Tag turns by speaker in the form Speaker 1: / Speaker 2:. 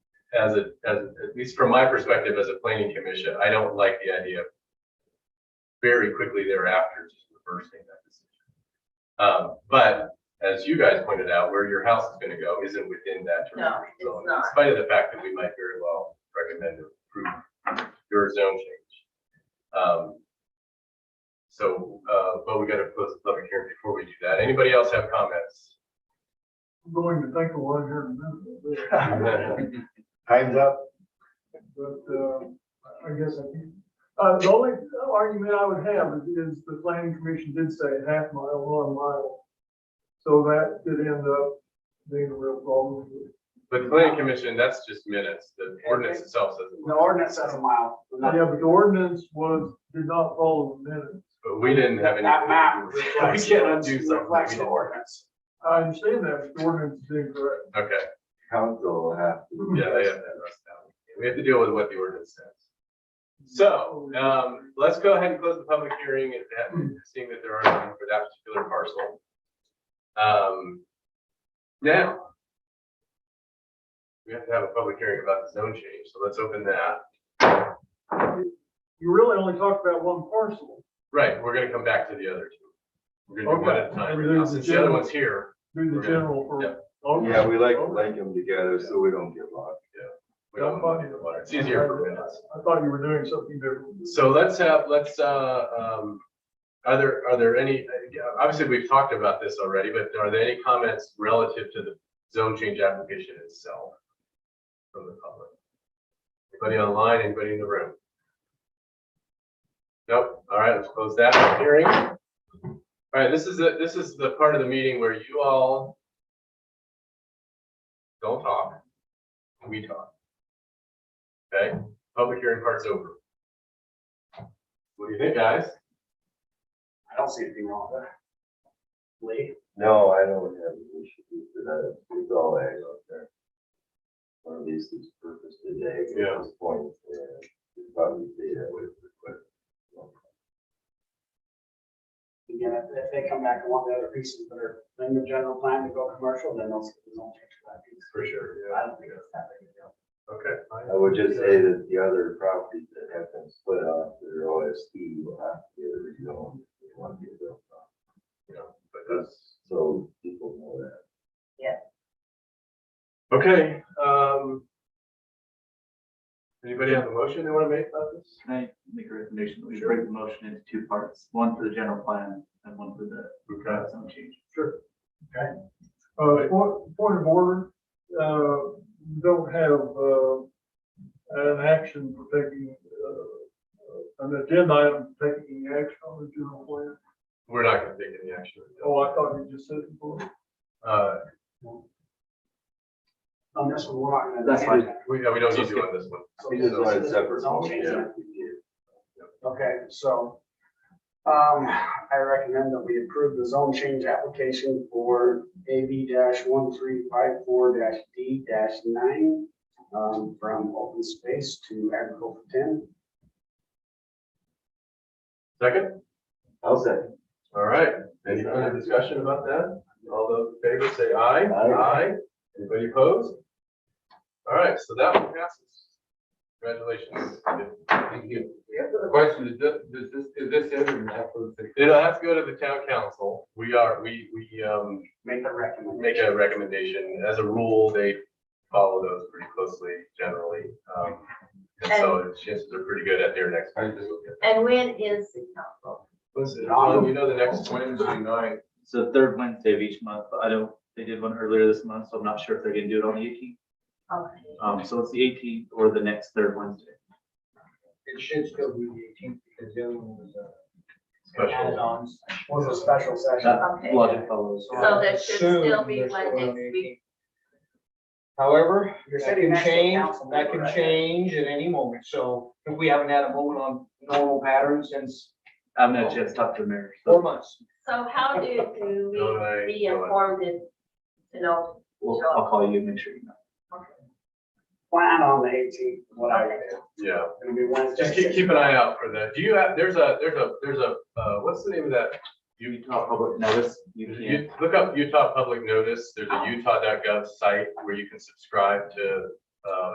Speaker 1: as a, as, at least from my perspective as a planning commission, I don't like the idea of very quickly thereafter, just reversing that decision. Um, but as you guys pointed out, where your house is gonna go isn't within that.
Speaker 2: No,
Speaker 1: term
Speaker 2: it's
Speaker 1: zone,
Speaker 2: not.
Speaker 1: In spite of the fact that we might very well recommend to approve your zone change. Um, so, uh, but we gotta close the public hearing before we do that. Anybody else have comments?
Speaker 3: I'm going to think of one here in a minute.
Speaker 4: Time's up.
Speaker 3: But, uh, I guess I can. Uh, the only argument I would have is, is the planning commission did say half mile, one mile. So that did end up being a real problem.
Speaker 1: But the planning commission, that's just minutes. The ordinance itself says,
Speaker 5: The ordinance says a mile. not-
Speaker 3: Yeah, but the ordinance was, did not follow the minutes.
Speaker 1: but we didn't have any.
Speaker 5: That map
Speaker 1: We
Speaker 5: reflects,
Speaker 1: can't undo something. that
Speaker 5: reflects
Speaker 1: we
Speaker 5: the
Speaker 1: didn't-
Speaker 5: ordinance.
Speaker 3: I understand that, but the ordinance is incorrect.
Speaker 1: Okay,
Speaker 4: Council uh, will have to.
Speaker 1: yeah, they have that rest out. We have to deal with what the ordinance says. So, um, let's go ahead and close the public hearing and that- seeing that there are none for that particular parcel. Um, now. We have to have a public hearing about the zone change, so let's open that.
Speaker 3: You really only talked about one parcel.
Speaker 1: Right, we're gonna come back to the other two. We're gonna do one at a time. right now, Since the other one's here,
Speaker 3: Do the general
Speaker 1: Yeah.
Speaker 3: for. Okay.
Speaker 4: Yeah, we like, like them together so we don't get lost.
Speaker 1: we don't want to do the water. It's easier for minutes.
Speaker 3: I thought you were doing something different.
Speaker 1: So let's have, let's, uh, um, are there, are there any, yeah, obviously, we've talked about this already, but are there any comments relative to the zone change application itself? From the public? Anybody online, anybody in the room? Nope, all right, let's close that hearing. All right, this is, the this is the part of the meeting where you all don't talk, we talk. Okay, public hearing part's over. What do you think, guys?
Speaker 5: I don't see anything wrong with that. Lee?
Speaker 4: No, I don't have an issue with that. It's all ag out there. Or at least it's purpose today.
Speaker 1: Yeah.
Speaker 4: At this point, uh, it's probably data with, with.
Speaker 5: Again, if, if they come back and want the other pieces that are in the general plan to go commercial, then they'll, they'll change that piece.
Speaker 1: For sure,
Speaker 5: I don't think it's that big a deal.
Speaker 1: Okay.
Speaker 4: I would just say that the other properties that have been split off their OSD will have to get rezoned. if They want to get built on.
Speaker 1: But
Speaker 4: That's, so people know that.
Speaker 1: that's- Okay, um. Anybody have a motion they wanna make about this?
Speaker 6: Can I make a recommendation? that We break the motion into two parts, one for the general plan and one for the
Speaker 1: Okay.
Speaker 6: zone change.
Speaker 3: Uh, point, point of order, uh, we don't have, uh, an action for taking, uh, an agenda item for taking action on the general plan.
Speaker 1: We're not gonna take any action.
Speaker 3: Oh, I thought you just said it before.
Speaker 1: Uh,
Speaker 5: On this one, we're not gonna.
Speaker 6: That's fine.
Speaker 1: we, yeah, we don't need to on this one.
Speaker 5: So
Speaker 4: We just want it
Speaker 5: this is-
Speaker 4: separate.
Speaker 5: zone change,
Speaker 4: Yeah.
Speaker 5: Okay, so, um, I recommend that we approve the zone change application for AB one three five four D nine, um, from open space to agricultural ten.
Speaker 1: Second,
Speaker 4: I'll say.
Speaker 1: all right, any further discussion about that? All those in favor say aye.
Speaker 4: Aye.
Speaker 1: Anybody opposed? All right, so that one passes. Congratulations.
Speaker 7: Thank you. The question is, does does this, is this ever an application?
Speaker 1: It'll have to go to the town council. We are, we, we, um,
Speaker 5: Make a recommendation.
Speaker 1: make a recommendation. As a rule, they follow those pretty closely generally. Um, And so chances are pretty good at their next.
Speaker 7: I just-
Speaker 2: And when is the council?
Speaker 1: Listen, Alan, you know the next one.
Speaker 7: Wednesday night,
Speaker 6: So the third Wednesday of each month, but I don't, they did one earlier this month, so I'm not sure if they're gonna do it on the eighteenth.
Speaker 2: Okay.
Speaker 6: Um, so it's the eighteenth or the next third Wednesday.
Speaker 7: it should still be the eighteenth because the other one was, uh,
Speaker 1: special.
Speaker 5: Add-ons. Was a special session.
Speaker 6: That
Speaker 2: Okay.
Speaker 6: logic follows.
Speaker 2: So there should still be
Speaker 7: Soon, there's
Speaker 2: one
Speaker 7: one on
Speaker 2: next week.
Speaker 7: However,
Speaker 5: You're
Speaker 7: that
Speaker 5: sitting
Speaker 7: can
Speaker 5: next to a
Speaker 7: change,
Speaker 5: council
Speaker 7: that
Speaker 5: member,
Speaker 7: can
Speaker 5: right?
Speaker 7: change at any moment. So if we haven't had a moment on normal patterns since
Speaker 6: I haven't had a chance to talk to the mayor. so-
Speaker 7: four months.
Speaker 2: So how do,
Speaker 1: Don't I-
Speaker 2: do we be informed and to know?
Speaker 6: Well, I'll call you, and make sure you know.
Speaker 5: Plan on the eighteenth, what I would do.
Speaker 1: Yeah,
Speaker 5: It'll be Wednesday.
Speaker 1: just keep, keep an eye out for that. Do you have, there's a, there's a, there's a, uh, what's the name of that?
Speaker 6: Utah Public Notice, you can.
Speaker 1: You, look up Utah Public Notice. There's a utah.gov site where you can subscribe to, uh,